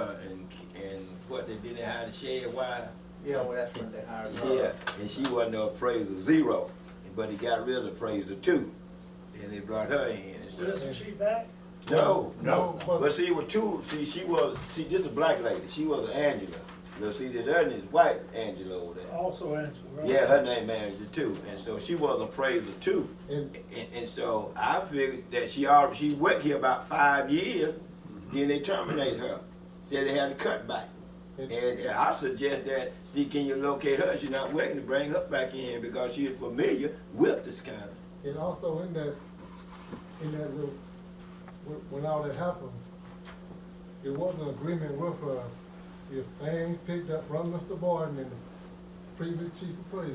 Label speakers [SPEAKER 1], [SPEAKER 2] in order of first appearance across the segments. [SPEAKER 1] and, and what, they didn't hire the shed why?
[SPEAKER 2] Yeah, well, that's when they hired
[SPEAKER 1] Yeah,
[SPEAKER 2] her.
[SPEAKER 1] and she wasn't an appraiser, zero, but he got rid of the appraiser too, and they brought her in and
[SPEAKER 3] So isn't
[SPEAKER 1] stuff.
[SPEAKER 3] she back?
[SPEAKER 1] No,
[SPEAKER 2] No.
[SPEAKER 1] but see, with two, see, she was, see, this is a black lady, she was an Angela. Now, see, this Angela is white Angela over there.
[SPEAKER 3] Also Angela, right?
[SPEAKER 1] Yeah, her name Angela too, and so she was an appraiser too.
[SPEAKER 4] And
[SPEAKER 1] And, and so I figured that she already, she worked here about five years, then they terminated her. Said they had a cut back. And, and I suggest that, see, can you locate her? She's not working to bring her back in because she is familiar with this kind of.
[SPEAKER 4] And also in that, in that little, when when all that happened, it was an agreement with her, if things picked up from Mr. Boyden and the previous chief appraiser,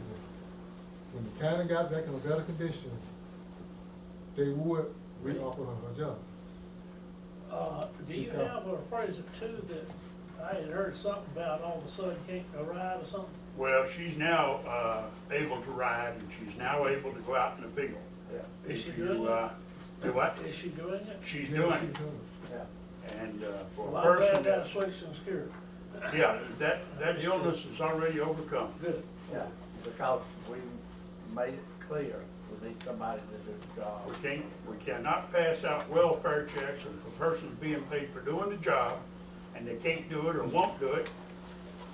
[SPEAKER 4] when the county got back in a better condition, they would reoffer her her job.
[SPEAKER 3] Uh, do you
[SPEAKER 4] Okay.
[SPEAKER 3] have an appraiser too that I had heard something about all of a sudden can't arrive or something?
[SPEAKER 5] Well, she's now, uh, able to ride and she's now able to go out in the field.
[SPEAKER 2] Yeah,
[SPEAKER 3] Is she
[SPEAKER 5] If you,
[SPEAKER 3] doing it?
[SPEAKER 5] uh, Do what?
[SPEAKER 3] Is she doing it?
[SPEAKER 5] She's
[SPEAKER 4] Yeah,
[SPEAKER 5] doing
[SPEAKER 4] she
[SPEAKER 5] it.
[SPEAKER 4] does.
[SPEAKER 2] yeah.
[SPEAKER 5] And, uh,
[SPEAKER 3] Well,
[SPEAKER 5] for a
[SPEAKER 3] I'm glad
[SPEAKER 5] person that's,
[SPEAKER 3] that's fixed and secured.
[SPEAKER 5] yeah, that, that illness is already overcome.
[SPEAKER 3] Good.
[SPEAKER 2] Yeah, because we made it clear, we need somebody to do the job.
[SPEAKER 5] We can't, we cannot pass out welfare checks if a person's being paid for doing the job and they can't do it or won't do it.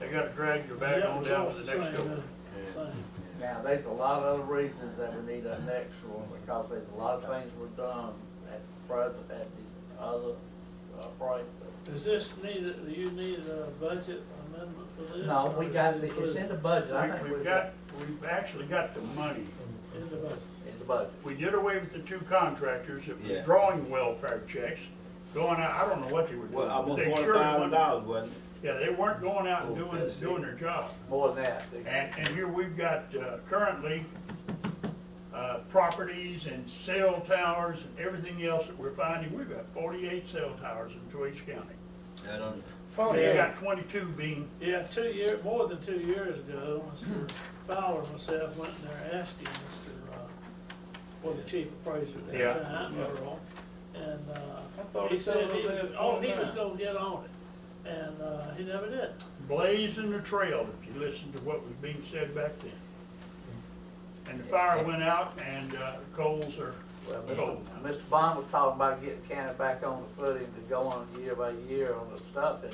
[SPEAKER 5] They gotta drag your back
[SPEAKER 3] Yeah,
[SPEAKER 5] on down
[SPEAKER 3] results
[SPEAKER 5] to
[SPEAKER 3] the
[SPEAKER 5] the next
[SPEAKER 3] same,
[SPEAKER 5] door.
[SPEAKER 3] uh, same.
[SPEAKER 2] Now, there's a lot of other reasons that we need an extra one, because there's a lot of things were done at present, at the other uh, appraiser.
[SPEAKER 3] Is this needed, do you need a budget amendment for this?
[SPEAKER 2] No,
[SPEAKER 3] or
[SPEAKER 2] we
[SPEAKER 3] is
[SPEAKER 2] got,
[SPEAKER 3] it
[SPEAKER 2] the it's in
[SPEAKER 3] included
[SPEAKER 2] the budget, I
[SPEAKER 5] We-
[SPEAKER 2] think
[SPEAKER 5] We've
[SPEAKER 2] we've
[SPEAKER 5] got, we've actually got the money.
[SPEAKER 3] In the budget.
[SPEAKER 2] in the budget.
[SPEAKER 5] We did away with the two contractors that
[SPEAKER 1] Yeah.
[SPEAKER 5] was drawing welfare checks, going out, I don't know what they were doing.
[SPEAKER 1] Well,
[SPEAKER 5] but
[SPEAKER 1] almost
[SPEAKER 5] they
[SPEAKER 1] forty
[SPEAKER 5] sure
[SPEAKER 1] thousand
[SPEAKER 5] wasn't-
[SPEAKER 1] dollars, wasn't it?
[SPEAKER 5] Yeah, they weren't going out and
[SPEAKER 1] Oh,
[SPEAKER 5] doing,
[SPEAKER 1] that's it.
[SPEAKER 5] doing their job.
[SPEAKER 2] More than that. they-
[SPEAKER 5] And, and here we've got uh, currently uh, properties and cell towers and everything else that we're finding. We've got forty-eight cell towers in Twice County.
[SPEAKER 1] I don't,
[SPEAKER 5] We've
[SPEAKER 3] Yeah.
[SPEAKER 5] got twenty-two being,
[SPEAKER 3] Yeah, two year, more than two years ago, Mr. Fowler and myself went in there asking Mr., uh, well, the chief appraiser at
[SPEAKER 5] Yeah.
[SPEAKER 3] that time, Earl, and, uh,
[SPEAKER 6] thought
[SPEAKER 3] he
[SPEAKER 6] he said
[SPEAKER 3] said he
[SPEAKER 6] he
[SPEAKER 3] was,
[SPEAKER 6] lived
[SPEAKER 3] oh, he
[SPEAKER 6] on
[SPEAKER 3] was
[SPEAKER 6] that.
[SPEAKER 3] gonna get on it, and, uh, he never did.
[SPEAKER 5] blazing the trail, if you listen to what was being said back then. And the fire went out and uh, coals are
[SPEAKER 2] Well,
[SPEAKER 3] Oh.
[SPEAKER 2] Mr.
[SPEAKER 5] cold.
[SPEAKER 2] Mr. Bond was talking about getting county back on the footing to go on year by year on the stuff, and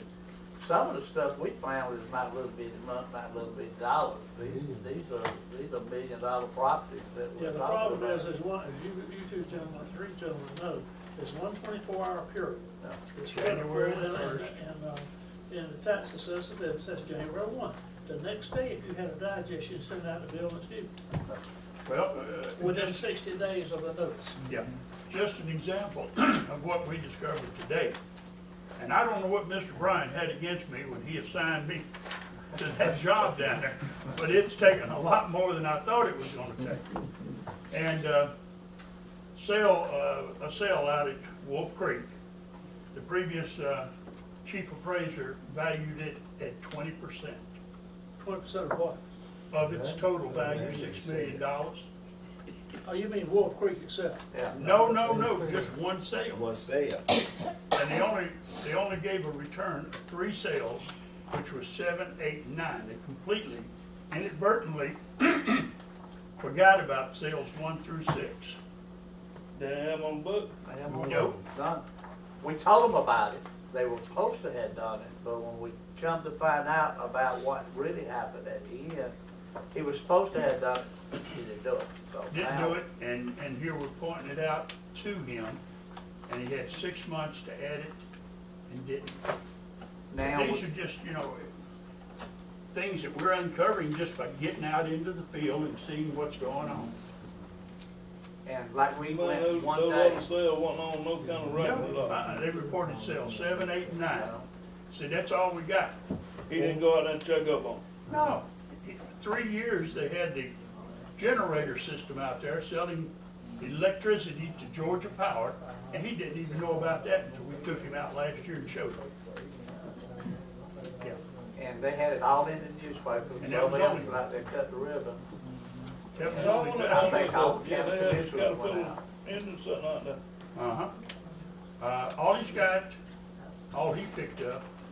[SPEAKER 2] some of the stuff we found was not little bit, not, not little bit dollars. These, these are, these are million dollar properties that
[SPEAKER 3] Yeah,
[SPEAKER 2] we're talking about.
[SPEAKER 3] the problem is, is one, as you, you two gentlemen, three gentlemen know, there's one twenty-four hour period.
[SPEAKER 2] Yeah.
[SPEAKER 3] It's
[SPEAKER 5] January
[SPEAKER 3] critical in- in-
[SPEAKER 5] 1st.
[SPEAKER 3] In, uh, in the tax assessment, it says January one. The next day, if you had a digest, you send out a bill that's due
[SPEAKER 5] Well, uh,
[SPEAKER 3] within sixty days of the notice.
[SPEAKER 5] Yeah, just an example of what we discovered today. And I don't know what Mr. Bryan had against me when he assigned me to that job down there, but it's taken a lot more than I thought it was gonna take. And, uh, sale, uh, a sale out at Wolf Creek, the previous, uh, chief appraiser valued it at twenty percent
[SPEAKER 3] Twenty percent of what?
[SPEAKER 5] of its total value,
[SPEAKER 1] Yeah.
[SPEAKER 5] six million dollars.
[SPEAKER 3] Oh, you mean Wolf Creek itself?
[SPEAKER 2] Yeah.
[SPEAKER 5] No, no, no, just one
[SPEAKER 1] I
[SPEAKER 5] sale.
[SPEAKER 1] wanna say it.
[SPEAKER 5] And they only, they only gave a return of three sales, which was seven, eight, and nine. They completely inadvertently forgot about sales one through six.
[SPEAKER 6] Damn, on book.
[SPEAKER 5] Nope.
[SPEAKER 2] Done. We told them about it, they were supposed to have done it, but when we come to find out about what really happened at the end, he was supposed to have done it, he didn't do it, so.
[SPEAKER 5] Didn't
[SPEAKER 2] now-
[SPEAKER 5] do it, and, and here we're pointing it out to him, and he had six months to add it and didn't.
[SPEAKER 2] Now. we-
[SPEAKER 5] These are just, you know, things that we're uncovering just by getting out into the field and seeing what's going on.
[SPEAKER 2] And like we
[SPEAKER 6] Man,
[SPEAKER 2] went
[SPEAKER 6] those,
[SPEAKER 2] one
[SPEAKER 6] those
[SPEAKER 2] day,
[SPEAKER 6] other cell wasn't on no kind of record at
[SPEAKER 5] No,
[SPEAKER 6] all.
[SPEAKER 5] uh-uh, They reported sales seven, eight, and nine. See, that's all we got.
[SPEAKER 6] He didn't go out there and check up on.
[SPEAKER 5] No, three years they had the generator system out there selling electricity to Georgia Power, and he didn't even know about that until we took him out last year and showed him. Yeah,
[SPEAKER 2] and they had it all in the newspaper,
[SPEAKER 5] And that
[SPEAKER 2] so
[SPEAKER 5] was
[SPEAKER 2] they
[SPEAKER 5] only-
[SPEAKER 2] was out there cut the ribbon.
[SPEAKER 5] That was
[SPEAKER 6] It's all
[SPEAKER 5] all
[SPEAKER 6] on
[SPEAKER 5] we
[SPEAKER 6] the
[SPEAKER 5] got.
[SPEAKER 2] I think all
[SPEAKER 6] Yeah, they had
[SPEAKER 2] county
[SPEAKER 6] to cut a
[SPEAKER 2] officials went out.
[SPEAKER 6] few in and something like that.
[SPEAKER 5] Uh-huh. Uh, all he's got, all he picked up